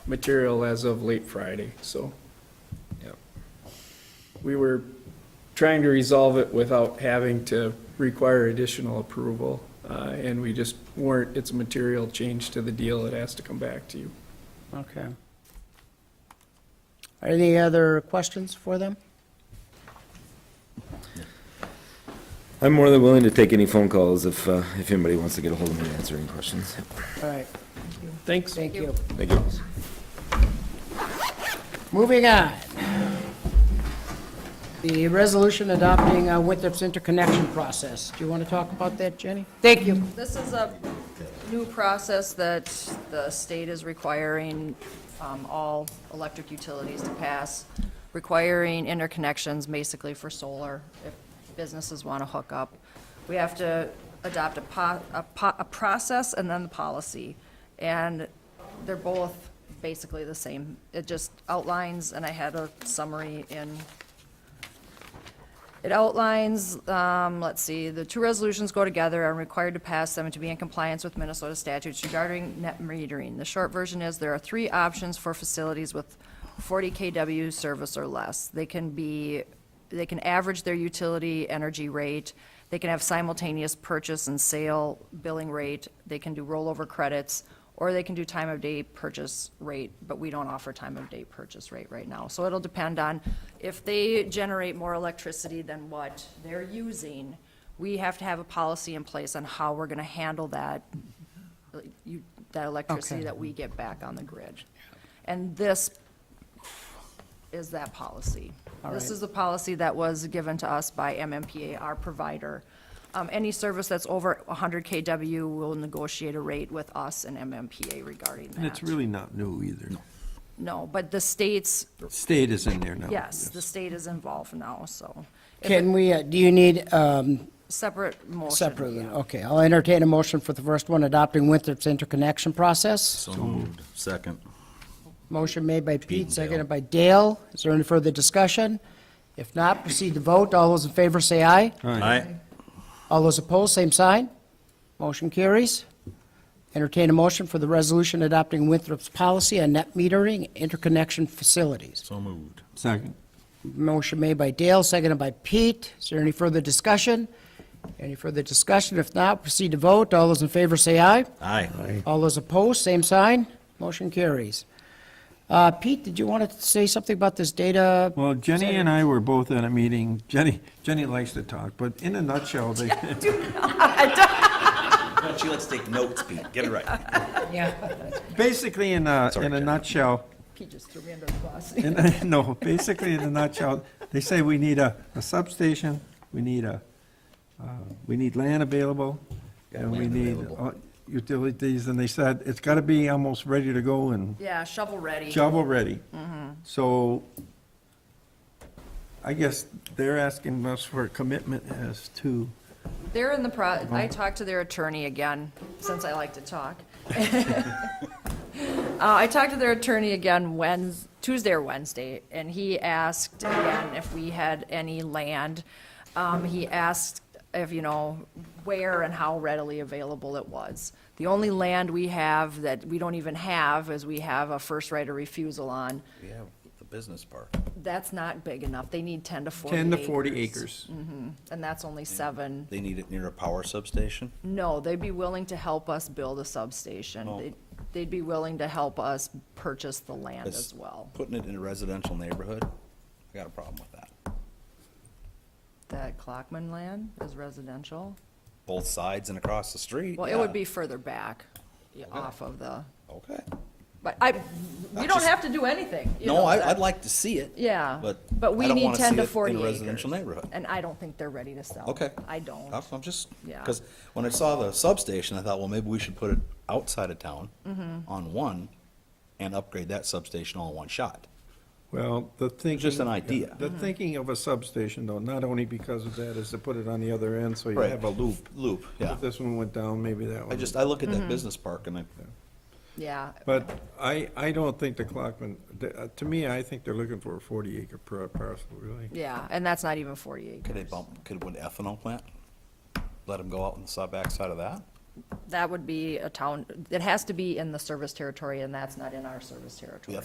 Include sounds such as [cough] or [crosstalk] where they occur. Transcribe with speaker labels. Speaker 1: material as of late Friday, so.
Speaker 2: Yep.
Speaker 1: We were trying to resolve it without having to require additional approval, uh, and we just weren't, it's a material change to the deal, it has to come back to you.
Speaker 3: Okay. Any other questions for them?
Speaker 2: I'm more than willing to take any phone calls if, uh, if anybody wants to get a hold of me to answer any questions.
Speaker 3: All right,
Speaker 1: Thanks.
Speaker 3: thank you.
Speaker 2: Thank you.
Speaker 3: Moving on. The resolution adopting uh, Winthrop's interconnection process. Do you want to talk about that, Jenny?
Speaker 4: Thank you. This is a new process that the state is requiring um, all electric utilities to pass, requiring interconnections basically for solar, if businesses want to hook up. We have to adopt a po, a po, a process and then the policy. And they're both basically the same. It just outlines, and I had a summary in it outlines, um, let's see, the two resolutions go together and required to pass them to be in compliance with Minnesota statutes regarding net metering. The short version is there are three options for facilities with 40 KW service or less. They can be, they can average their utility energy rate, they can have simultaneous purchase and sale billing rate, they can do rollover credits, or they can do time of day purchase rate, but we don't offer time of day purchase rate right now. So it'll depend on if they generate more electricity than what they're using, we have to have a policy in place on how we're gonna handle that, like, you, that electricity
Speaker 3: Okay.
Speaker 4: that we get back on the grid. And this is that policy.
Speaker 3: All
Speaker 4: This
Speaker 3: right.
Speaker 4: is the policy that was given to us by MMPA, our provider. Um, Any service that's over 100 KW will negotiate a rate with us and MMPA regarding that.
Speaker 5: And it's really not new either.
Speaker 4: No, but the states,
Speaker 5: State is in there now.
Speaker 4: yes, the state is involved now, so. If
Speaker 3: Can we, uh, do you need um,
Speaker 4: it- Separate motion.
Speaker 3: separately?
Speaker 4: yeah.
Speaker 3: Okay, I'll entertain a motion for the first one, adopting Winthrop's interconnection process.
Speaker 6: So moved. Second.
Speaker 3: Motion made by
Speaker 6: Pete and
Speaker 3: Pete,
Speaker 6: Dale.
Speaker 3: seconded by Dale. Is there any further discussion? If not, proceed to vote. All those in favor say aye.
Speaker 6: Aye.
Speaker 3: All those opposed, same sign. Motion carries. Entertain a motion for the resolution adopting Winthrop's policy on net metering interconnection facilities.
Speaker 6: So moved.
Speaker 5: Second.
Speaker 3: Motion made by Dale, seconded by Pete. Is there any further discussion? Any further discussion? If not, proceed to vote. All those in favor say aye.
Speaker 6: Aye.
Speaker 3: All those opposed, same sign. Motion carries. Uh, Pete, did you want to say something about this data?
Speaker 5: Well, Jenny and I were both at a meeting. Jenny, Jenny likes to talk, but in a nutshell, they, [laughs]
Speaker 7: She likes to take notes, Pete. Get it right.
Speaker 5: basically in a, in a nutshell,
Speaker 4: Pete just threw me under the bus.
Speaker 5: in a- [laughs] no, basically in a nutshell, they say we need a, a substation, we need a, uh, we need land available, and we
Speaker 6: land
Speaker 5: need
Speaker 6: available.
Speaker 5: uh, utilities, and they said it's gotta be almost ready to go and
Speaker 4: Yeah, shovel ready.
Speaker 5: shovel ready. So I guess they're asking us for a commitment as to,
Speaker 4: They're in the pro, I talked to their attorney again, since I like to talk. Uh, I talked to their attorney again Wednes, Tuesday or Wednesday, and he asked again if we had any land. Um, he asked if, you know, where and how readily available it was. The only land we have that we don't even have is we have a first right of refusal on.
Speaker 7: We have the business park.
Speaker 4: That's not big enough. They need ten to forty
Speaker 5: 10 to 40 acres.
Speaker 4: And that's only seven
Speaker 7: They need it near a power substation.
Speaker 4: No, they'd be willing to help us build a substation.
Speaker 7: Oh.
Speaker 4: They'd- They'd be willing to help us purchase the land
Speaker 7: That's-
Speaker 4: as well.
Speaker 7: Putting it in a residential neighborhood, I got a problem with that.
Speaker 4: That Clockman land is residential.
Speaker 7: Both sides and across the street.
Speaker 4: Well, it would
Speaker 7: yeah.
Speaker 4: be further back yeah, off of the,
Speaker 7: Okay.
Speaker 4: but I, we don't
Speaker 7: just-
Speaker 4: have to do anything. you
Speaker 7: No,
Speaker 4: know,
Speaker 7: I,
Speaker 4: that-
Speaker 7: I'd like to see it.
Speaker 4: Yeah,
Speaker 7: But
Speaker 4: but
Speaker 7: I
Speaker 4: we
Speaker 7: don't
Speaker 4: need
Speaker 7: wanna
Speaker 4: ten
Speaker 7: see
Speaker 4: to
Speaker 7: it
Speaker 4: forty
Speaker 7: in a
Speaker 4: acres.
Speaker 7: residential neighborhood.
Speaker 4: And I don't think they're ready to sell.
Speaker 7: Okay.
Speaker 4: I don't.
Speaker 7: I'm I'm just,
Speaker 4: Yeah.
Speaker 7: because when I saw the substation, I thought, well, maybe we should put it outside of town
Speaker 4: Mm-hmm.
Speaker 7: on one and upgrade that substation all in one shot.
Speaker 5: well, the thinking.
Speaker 7: Just an idea.
Speaker 5: The thinking of a substation, though, not only because of that, is to put it on the other end, so you have a loop.
Speaker 7: Loop, yeah.
Speaker 5: If this one went down, maybe that one.
Speaker 7: I just, I look at that business park and I,
Speaker 4: Yeah.
Speaker 5: But I, I don't think the Clockman, the- uh, to me, I think they're looking for a 40-acre parcel, really.
Speaker 4: Yeah, and that's not even forty
Speaker 7: could they
Speaker 4: acres.
Speaker 7: bump, could, would ethanol plant, let them go out on the side, backside of that?
Speaker 4: that would be a town, it has to be in the service territory, and that's not in our service territory.